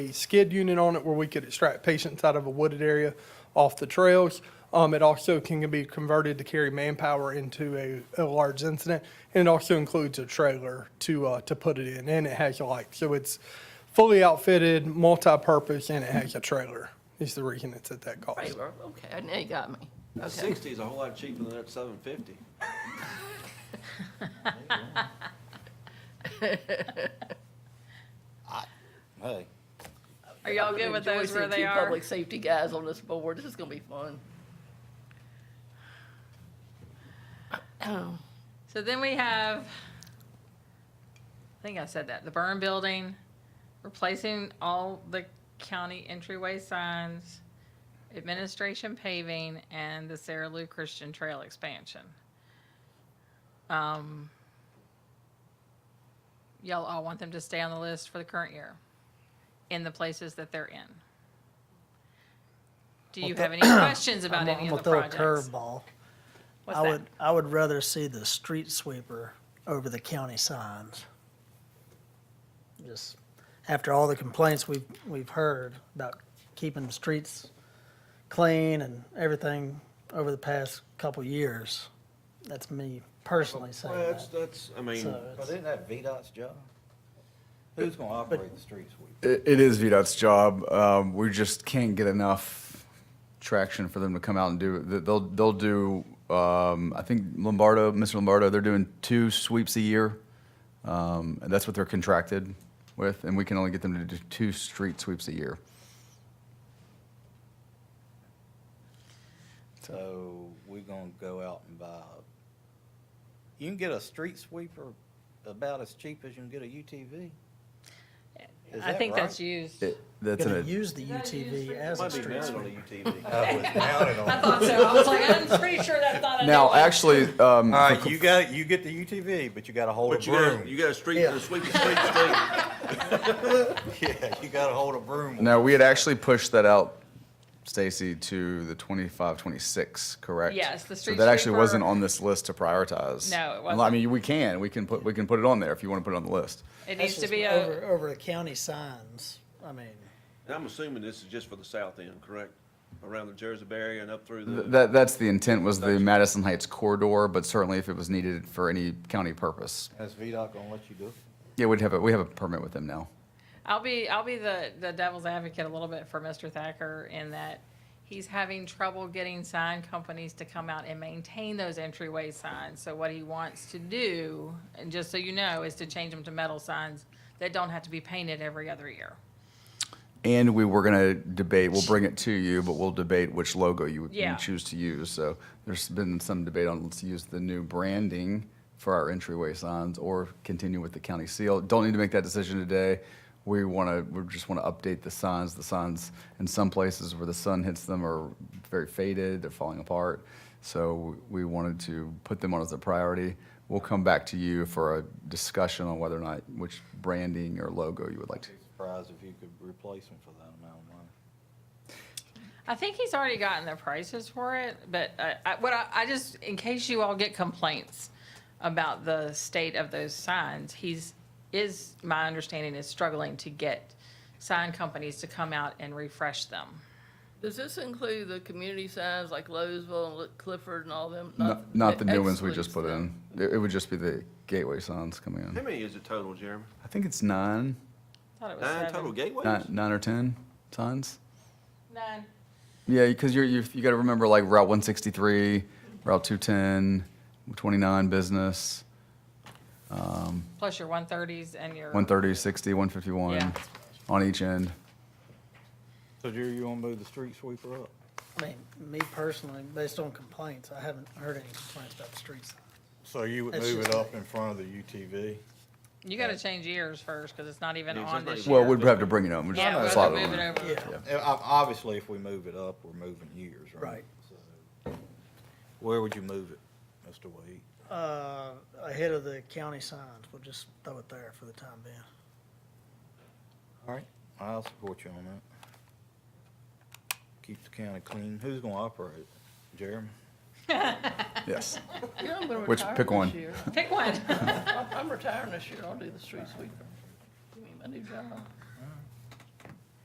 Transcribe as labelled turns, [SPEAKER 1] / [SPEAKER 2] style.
[SPEAKER 1] a skid unit on it where we could extract patients out of a wooded area off the trails. Um, it also can be converted to carry manpower into a, a large incident. And it also includes a trailer to, uh, to put it in, and it has a light. So it's fully outfitted, multi-purpose, and it has a trailer, is the reason it's at that cost.
[SPEAKER 2] Trailer, okay, now you got me. Okay,
[SPEAKER 3] Sixty is a whole lot cheaper than that seven fifty.
[SPEAKER 4] Hey,
[SPEAKER 5] Are y'all good with
[SPEAKER 2] Enjoy
[SPEAKER 5] those where
[SPEAKER 2] seeing
[SPEAKER 5] they
[SPEAKER 2] two
[SPEAKER 5] are?
[SPEAKER 2] Public safety guys on this board, this is gonna be fun.
[SPEAKER 5] So then we have, I think I said that, the burn building, replacing all the county entryway signs, administration paving, and the Sarah Lou Christian Trail expansion. Um, y'all all want them to stay on the list for the current year in the places that they're in. Do you have any questions about
[SPEAKER 6] I'm
[SPEAKER 5] any
[SPEAKER 6] gonna
[SPEAKER 5] of the
[SPEAKER 6] throw a
[SPEAKER 5] projects?
[SPEAKER 6] curveball.
[SPEAKER 5] What's
[SPEAKER 6] I
[SPEAKER 5] that?
[SPEAKER 6] would, I would rather see the street sweeper over the county signs. Just after all the complaints we've, we've heard about keeping the streets clean and everything over the past couple years. That's me personally saying
[SPEAKER 3] Well, that's,
[SPEAKER 6] that.
[SPEAKER 3] that's, I mean,
[SPEAKER 6] So
[SPEAKER 4] but
[SPEAKER 6] it's-
[SPEAKER 4] isn't that VDOT's job? Who's gonna operate the street sweep?
[SPEAKER 7] It, it is VDOT's job. Um, we just can't get enough traction for them to come out and do it. They- They'll, they'll do, um, I think Lombardo, Mr. Lombardo, they're doing two sweeps a year. Um, and that's what they're contracted with, and we can only get them to do two street sweeps a year.
[SPEAKER 4] So we're gonna go out and buy, you can get a street sweeper about as cheap as you can get a UTV. Is
[SPEAKER 5] I
[SPEAKER 4] that
[SPEAKER 5] think
[SPEAKER 4] right?
[SPEAKER 5] that's used.
[SPEAKER 7] It, that's
[SPEAKER 6] Gonna
[SPEAKER 7] an,
[SPEAKER 6] use the UTV as a
[SPEAKER 3] might be
[SPEAKER 6] street
[SPEAKER 3] mounted
[SPEAKER 6] sweeper.
[SPEAKER 3] on a UTV.
[SPEAKER 4] I was mounted on. it.
[SPEAKER 5] thought so. I was like, I'm pretty sure that's not a new
[SPEAKER 7] now,
[SPEAKER 5] one.
[SPEAKER 7] actually, um,
[SPEAKER 4] All right, you got, you get the UTV, but you gotta hold a
[SPEAKER 3] But you got,
[SPEAKER 4] broom.
[SPEAKER 3] you got a street,
[SPEAKER 6] Yeah.
[SPEAKER 3] a sweep, a street, street.
[SPEAKER 4] Yeah, you gotta hold a broom. with
[SPEAKER 7] now we had actually pushed that out, Stacy, to the 25, 26, correct?
[SPEAKER 5] Yes, the street
[SPEAKER 7] So that actually
[SPEAKER 5] sweeper-
[SPEAKER 7] wasn't on this list to prioritize.
[SPEAKER 5] No, it
[SPEAKER 7] Well, I
[SPEAKER 5] wasn't.
[SPEAKER 7] mean, we can, we can put, we can put it on there if you want to put it on the list.
[SPEAKER 5] It
[SPEAKER 6] That's
[SPEAKER 5] needs to
[SPEAKER 6] just
[SPEAKER 5] be
[SPEAKER 6] Over,
[SPEAKER 5] a,
[SPEAKER 6] over the county signs, I mean,
[SPEAKER 3] And I'm assuming this is just for the south end, correct? Around the Jersey barrier and up through
[SPEAKER 7] Th-
[SPEAKER 3] the,
[SPEAKER 7] That, that's the intent was the Madison Heights corridor, but certainly if it was needed for any county purpose.
[SPEAKER 4] it. Is VDOT gonna let you do it?
[SPEAKER 7] Yeah, we'd have a, we have a permit with them now.
[SPEAKER 5] I'll be, I'll be the, the devil's advocate a little bit for Mr. Thacker in that he's having trouble getting sign companies to come out and maintain those entryway signs. So what he wants to do, and just so you know, is to change them to metal signs that don't have to be painted every other year.
[SPEAKER 7] And we were gonna debate, we'll bring it to you, but we'll debate which logo you would
[SPEAKER 5] Yeah.
[SPEAKER 7] you choose to use. So there's been some debate on, let's use the new branding for our entryway signs or continue with the county seal. Don't need to make that decision today. We wanna, we just wanna update the signs. The signs in some places where the sun hits them are very faded, they're falling apart. So we wanted to put them on as a priority. We'll come back to you for a discussion on whether or not, which branding or logo you would like to.
[SPEAKER 4] Surprised if you could replace them for that amount of money.
[SPEAKER 5] I think he's already gotten the prices for it, but uh, I, what I, I just, in case you all get complaints about the state of those signs, he's, is, my understanding is struggling to get sign companies to come out and refresh them.
[SPEAKER 2] Does this include the community signs like Lowesville and Clifford and all them?
[SPEAKER 7] Not, not the new ones we just put
[SPEAKER 2] excludes them.
[SPEAKER 7] in. It, it would just be the gateway signs coming
[SPEAKER 3] how
[SPEAKER 7] in.
[SPEAKER 3] many is it total, Jeremy?
[SPEAKER 7] I think it's nine,
[SPEAKER 5] Thought it was
[SPEAKER 3] Nine total
[SPEAKER 5] seven.
[SPEAKER 7] nine,
[SPEAKER 3] gateways?
[SPEAKER 7] nine or ten signs.
[SPEAKER 5] Nine.
[SPEAKER 7] Yeah, because you're, you've, you got to remember like Route 163, Route 210, 29 business,
[SPEAKER 5] Plus your one thirties and your.
[SPEAKER 7] 130, 60, 151
[SPEAKER 5] Yeah.
[SPEAKER 7] on each end.
[SPEAKER 4] So Jerry, you wanna move the street sweeper up?
[SPEAKER 6] I mean, me personally, based on complaints, I haven't heard any complaints about the street signs.
[SPEAKER 4] So you would
[SPEAKER 6] That's
[SPEAKER 4] move it
[SPEAKER 6] just-
[SPEAKER 4] up in front of the UTV?
[SPEAKER 5] You gotta change years first, cause it's not even
[SPEAKER 3] Yeah, it's
[SPEAKER 5] on
[SPEAKER 3] not
[SPEAKER 5] this
[SPEAKER 3] even-
[SPEAKER 5] year.
[SPEAKER 7] Well, we'd have to bring it up. We'd just
[SPEAKER 5] Yeah, we'll
[SPEAKER 7] slot
[SPEAKER 5] have to
[SPEAKER 7] it
[SPEAKER 5] move
[SPEAKER 7] on.
[SPEAKER 5] it over.
[SPEAKER 6] Yeah.
[SPEAKER 4] Yeah, ob- Obviously, if we move it up, we're moving years, right?
[SPEAKER 6] Right.
[SPEAKER 4] So, Where would you move it, Mr. Wade?
[SPEAKER 6] Uh, ahead of the county signs, we'll just throw it there for the time being.
[SPEAKER 4] All right. I'll support you on that. Keep the county clean. Who's gonna operate it? Jeremy?
[SPEAKER 7] Yes.
[SPEAKER 2] You know, I'm gonna
[SPEAKER 7] Which-
[SPEAKER 2] retire
[SPEAKER 7] pick
[SPEAKER 2] this
[SPEAKER 7] one.
[SPEAKER 2] year.
[SPEAKER 5] Pick one.
[SPEAKER 2] I'm I'm retiring this year. I'll do the street sweeper. Give me my new job.